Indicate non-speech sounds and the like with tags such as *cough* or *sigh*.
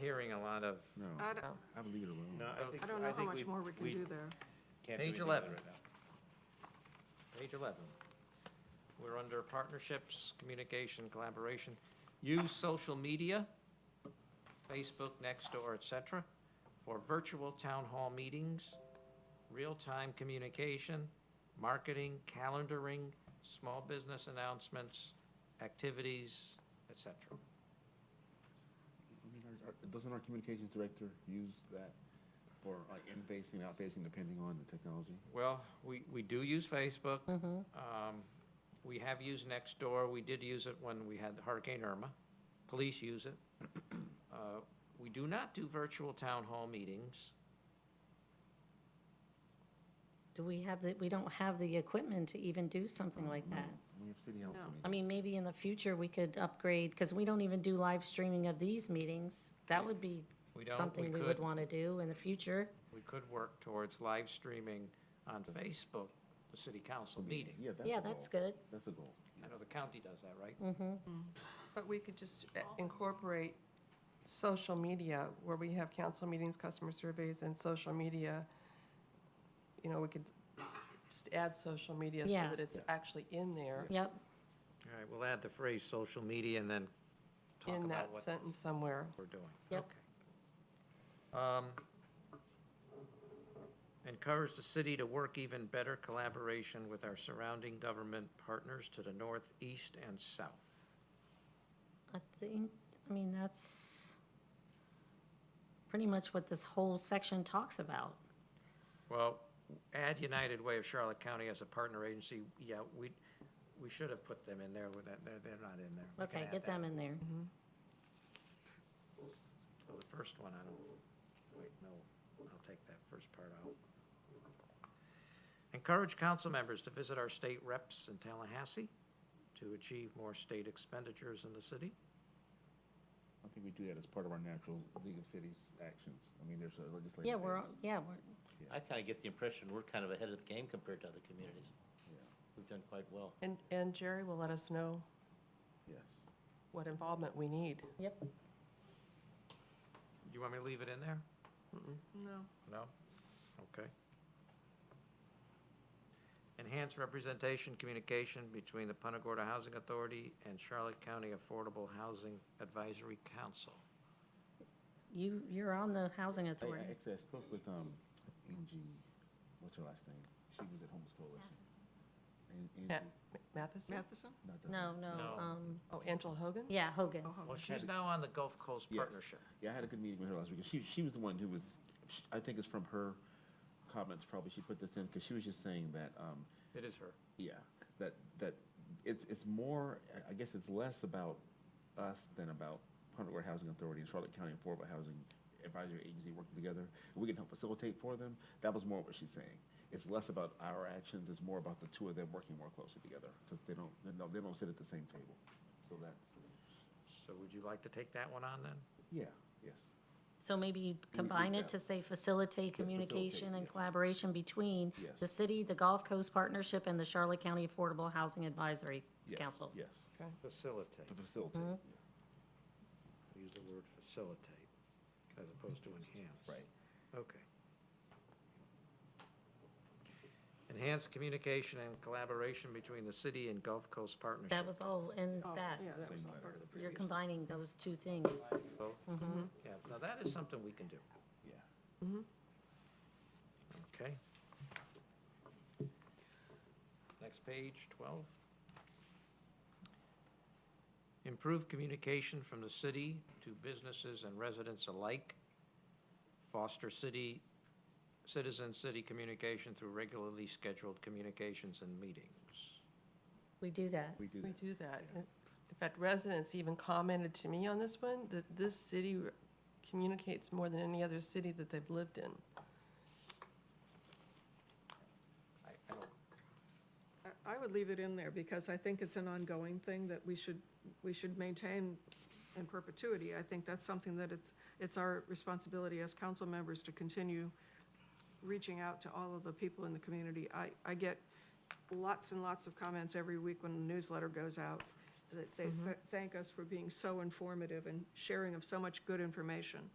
hearing a lot of, No, Uh, I don't, I would leave it alone. No, I think, I don't know I how think we, much more we can we do there. can't do Page anything about 11. it right now. page 11. We're under partnerships, communication, collaboration. Use social media, Facebook, Nextdoor, et cetera, for virtual town hall meetings, real-time communication, marketing, calendaring, small business announcements, activities, et cetera. I mean, our- our- Doesn't our communications director use that for like in-facing, out-facing, depending on the technology? Well, we, we do use Facebook. Mm-hmm. Um, We have used Nextdoor. We did use it when we had Hurricane Irma. Police use *clears throat* it. Uh, We do not do virtual town hall meetings. Do we have the, we don't have the equipment to even do something like that? Mm-hmm. We have city council No. I meetings. mean, maybe in the future, we could upgrade, because we don't even do live streaming of these meetings. That would be We don't, we something we would could, want to do in the future. we could work towards live streaming on Facebook, the city council meeting. Yeah, that's a Yeah, goal. that's good. That's a goal. I know the county does that, right? Mm. But we could just eh, incorporate social media, where we have council meetings, customer surveys, and social media. You know, we could just add social media so Yeah. that it's actually in there, Yep, All right, we'll add the phrase social media and then talk in about that what sentence somewhere. we're doing. uh, Yep. Okay. Um, Encourage the city to work even better collaboration with our surrounding government partners to the north, east, and south. I think, I mean, that's pretty much what this whole section talks about. Well, add United Way of Charlotte County as a partner agency, yeah, we, we should have put them in there, with that- they're, they're not in there. We can Okay, add get that. Mm-hmm. them in there. So the first one, I don't, wait, no, I'll take that first part out. Encourage council members to visit our state reps in Tallahassee to achieve more state expenditures in the city. I think we do that as part of our natural League of Cities actions. I mean, there's a legislative. Yeah, we're, phase. all- yeah, we're, I kind of get the impression we're kind of ahead of the game compared to other communities. We've done quite well. And, and Jerry will let us know Yes. what involvement we need. yep. Do you want me to leave it in there? No. No? Okay. Enhance representation, communication between the Punta Gorda Housing Authority and Charlotte County Affordable Housing Advisory Council. You, you're on the housing I, authority. I actually I spoke with, um, Angie, what's her last name? She was at Homeless Coalition. An- Mm-hmm. Angie, Matheson? Matheson? not the- No, no, No. Oh, um, Oh, Angela Hogan? yeah, Hogan. Well, she's now on the Gulf Coast Yes. Partnership. Yeah, I had a good meeting with her last week. She, she was the one who was, sh I think it's from her comments probably, she put this in, because she was just saying that, um, It is her. yeah, that, that it's, it's more, I- I guess it's less about us than about Punta Gorda Housing Authority and Charlotte County Affordable Housing Advisory Agency working together. We can help facilitate for them. That was more what she's saying. It's less about our actions, it's more about the two of them working more closely together, because they don't, they don't, they don't sit at the same table. So that's, So would you like to take that one on then? yeah, yes, So maybe you combine yeah. it to say facilitate facilitate, communication and yes. collaboration between Yes. the city, the Gulf Coast Partnership, and the Charlotte County Affordable Housing Advisory yes. Council. Yes, Facilitate. to facilitate, yeah. Use the word facilitate as opposed to enhance. Right. Okay. Enhance communication and collaboration between the city and Gulf Coast Partnership. That was all in Oh, that. Oh, Yeah, that was Same all letter. part of the You're previous. combining those two things. Both? Yeah, now that is something we can do, Yeah. okay? Next page, 12. Improve communication from the city to businesses and residents alike. Foster city, citizen-city communication through regularly scheduled communications and meetings. We do that. We do We that. do that. In in fact, residents even commented to me on this one, that this city communicates more than any other city that they've lived in. I, I don't, I- I would leave it in there because I think it's an ongoing thing that we should, we should maintain in perpetuity. I think that's something that it's, it's our responsibility as council members to continue reaching out to all of the people in the community. I, I get lots and lots of comments every week when the newsletter goes out, that they th- thank us for being so informative and sharing of so much good information.